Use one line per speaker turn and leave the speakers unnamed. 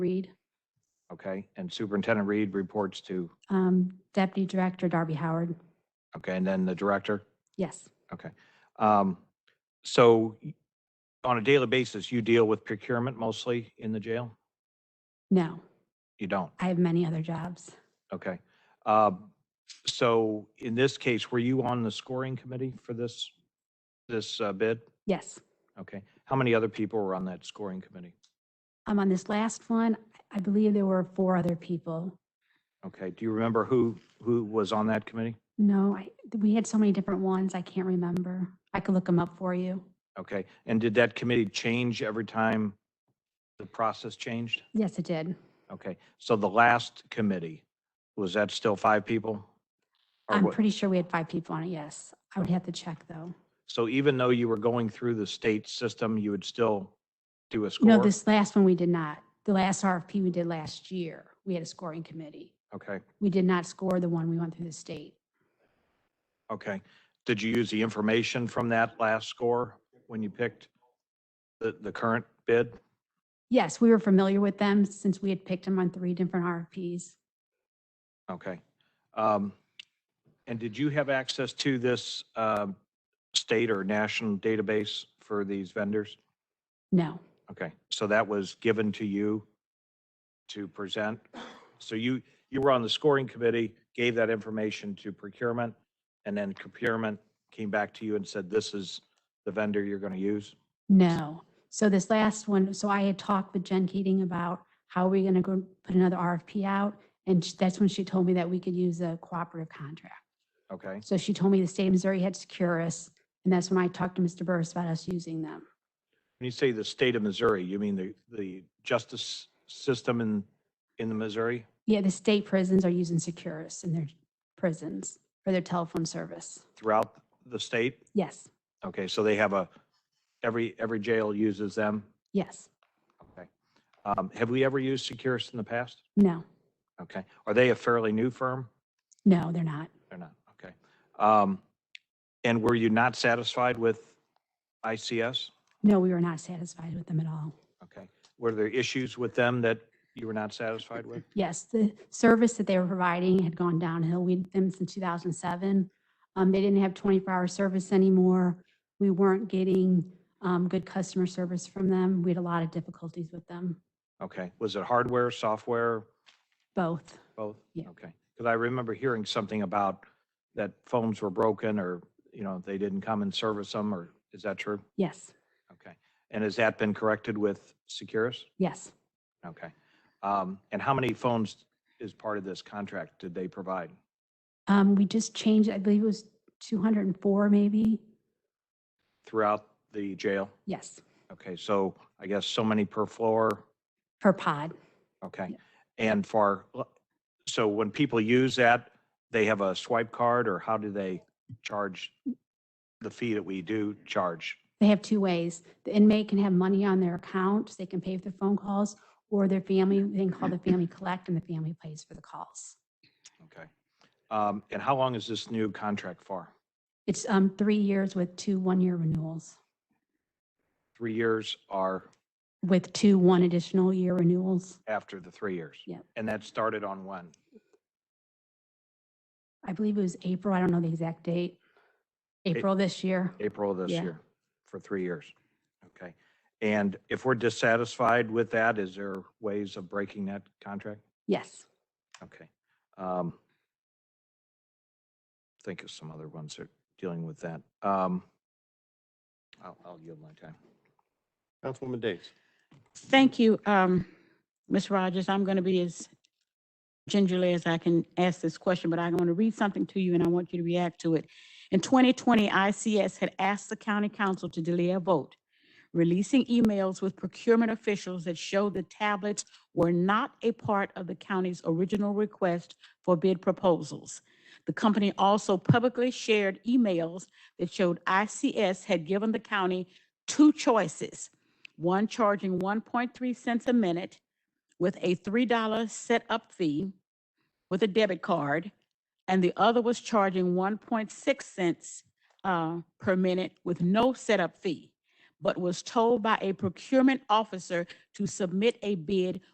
Reed,
Okay, and Superintendent Reed reports to,
um, Deputy Director Darby Howard.
okay, and then the director?
Yes,
Um, So y- on a daily basis, you deal with procurement mostly in the jail?
no,
You don't?
I have many other jobs.
Okay. Um, So in this case, were you on the scoring committee for this, this uh, bid?
Yes,
Okay. How many other people were on that scoring committee?
I'm on this last one. I believe there were four other people.
Okay, do you remember who, who was on that committee?
No, I, we had so many different ones, I can't remember. I could look them up for you.
Okay, and did that committee change every time the process changed?
Yes, it did.
Okay, so the last committee, was that still five people? Or
I'm
what-
pretty sure we had five people on it, yes. I would have to check, though.
So even though you were going through the state system, you would still do a score?
No, this last one we did not. The last RFP we did last year, we had a scoring committee.
Okay,
We did not score the one we went through the state.
okay. Did you use the information from that last score when you picked the, the current bid?
Yes, we were familiar with them since we had picked them on three different RFPs.
Okay. Um, And did you have access to this um, state or national database for these vendors?
No,
Okay, so that was given to you to present? So you, you were on the scoring committee, gave that information to procurement, and then procurement came back to you and said, this is the vendor you're going to use?
no. So this last one, so I had talked with Jen Keating about how we're going to go put another RFP out. And sh- that's when she told me that we could use a cooperative contract.
Okay,
So she told me the state of Missouri had Securus. And that's when I talked to Mr. Burris about us using them.
when you say the state of Missouri, you mean the, the justice system in, in the Missouri?
Yeah, the state prisons are using Securus in their prisons for their telephone service.
Throughout the state?
Yes,
Okay, so they have a, every, every jail uses them?
yes,
Okay. Um, Have we ever used Securus in the past?
no,
Okay, are they a fairly new firm?
no, they're not.
They're not, okay. Um, And were you not satisfied with ICS?
No, we were not satisfied with them at all.
Okay. Were there issues with them that you were not satisfied with?
Yes, the service that they were providing had gone downhill. We'd been since 2007. Um, They didn't have 24-hour service anymore. We weren't getting um, good customer service from them. We had a lot of difficulties with them,
Okay, was it hardware, software,
both.
both?
Yeah.
Okay, because I remember hearing something about that phones were broken or, you know, they didn't come and service them, or is that true?
Yes,
Okay, and has that been corrected with Securus?
yes.
Okay. Um, And how many phones is part of this contract did they provide?
Um, We just changed, I believe it was 204 maybe.
Throughout the jail?
Yes,
Okay, so I guess so many per floor,
per pod.
okay.
Yeah.
And for, so when people use that, they have a swipe card or how do they charge the fee that we do charge?
They have two ways. The inmate can have money on their account, they can pay for their phone calls, or their family, they can call the family collect and the family pays for the calls.
Okay. Um, And how long is this new contract for?
It's um, three years with two one-year renewals,
Three years or
with two one additional year renewals.
after the three years?
Yep.
And that started on when?
I believe it was April, I don't know the exact date. April this year.
April of this
Yeah.
year, for three years. Okay. And if we're dissatisfied with that, is there ways of breaking that contract?
Yes,
Okay. Um, Think of some other ones that are dealing with that. Um, I'll, I'll yield my time.
Councilwoman Days.
Thank you, um, Ms. Rogers. I'm going to be as gingerly as I can ask this question, but I'm going to read something to you and I want you to react to it. In 2020, ICS had asked the county council to delay a vote, releasing emails with procurement officials that showed the tablets were not a part of the county's original request for bid proposals. The company also publicly shared emails that showed ICS had given the county two choices one charging 1.3 cents a minute with a $3 setup fee with a debit card, and the other was charging 1.6 cents uh, per minute with no setup fee, but was told by a procurement officer to submit a bid